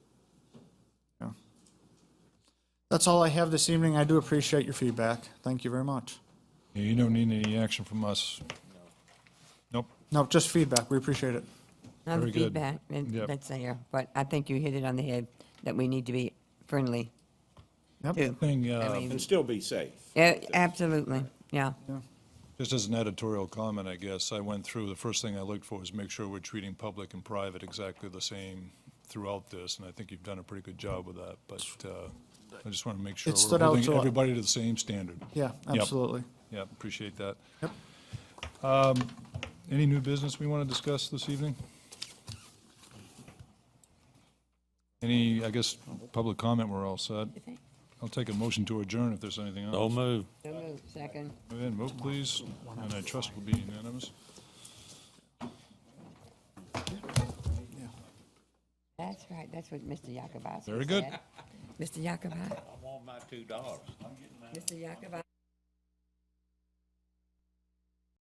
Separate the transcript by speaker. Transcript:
Speaker 1: That's all I have this evening. I do appreciate your feedback. Thank you very much.
Speaker 2: Yeah, You don't need any action from us. Nope.
Speaker 1: No, just feedback. We appreciate it.
Speaker 3: Not the
Speaker 2: Very good.
Speaker 3: feedback,
Speaker 2: Yep.
Speaker 3: it- that's there, but I think you hit it on the head, that we need to be friendly.
Speaker 1: Yep.
Speaker 3: too.
Speaker 2: Thing,
Speaker 3: I
Speaker 2: uh,
Speaker 3: mean,
Speaker 4: and still be safe.
Speaker 3: yeah, Absolutely, yeah.
Speaker 2: just as an editorial comment, I guess, I went through, the first thing I looked for was make sure we're treating public and private exactly the same throughout this, and I think you've done a pretty good job with that, but uh, I just want to make sure
Speaker 1: It
Speaker 2: we're
Speaker 1: stood out
Speaker 2: holding
Speaker 1: to-
Speaker 2: everybody to the same standard.
Speaker 1: Yeah,
Speaker 2: Yep.
Speaker 1: absolutely.
Speaker 2: Yeah, appreciate that.
Speaker 1: Yep.
Speaker 2: Um, Any new business we want to discuss this evening? Any, I guess, public comment, we're all set. I'll take a motion to adjourn if there's anything else.
Speaker 5: No move.
Speaker 3: So moved. Second.
Speaker 2: Go ahead and vote, please, and I trust will be unanimous.
Speaker 3: That's right, that's what Mr. Yakubov said.
Speaker 2: Very good.
Speaker 3: Mr. Yakubov,
Speaker 4: I want my two dollars.
Speaker 3: Mr. Yakubov.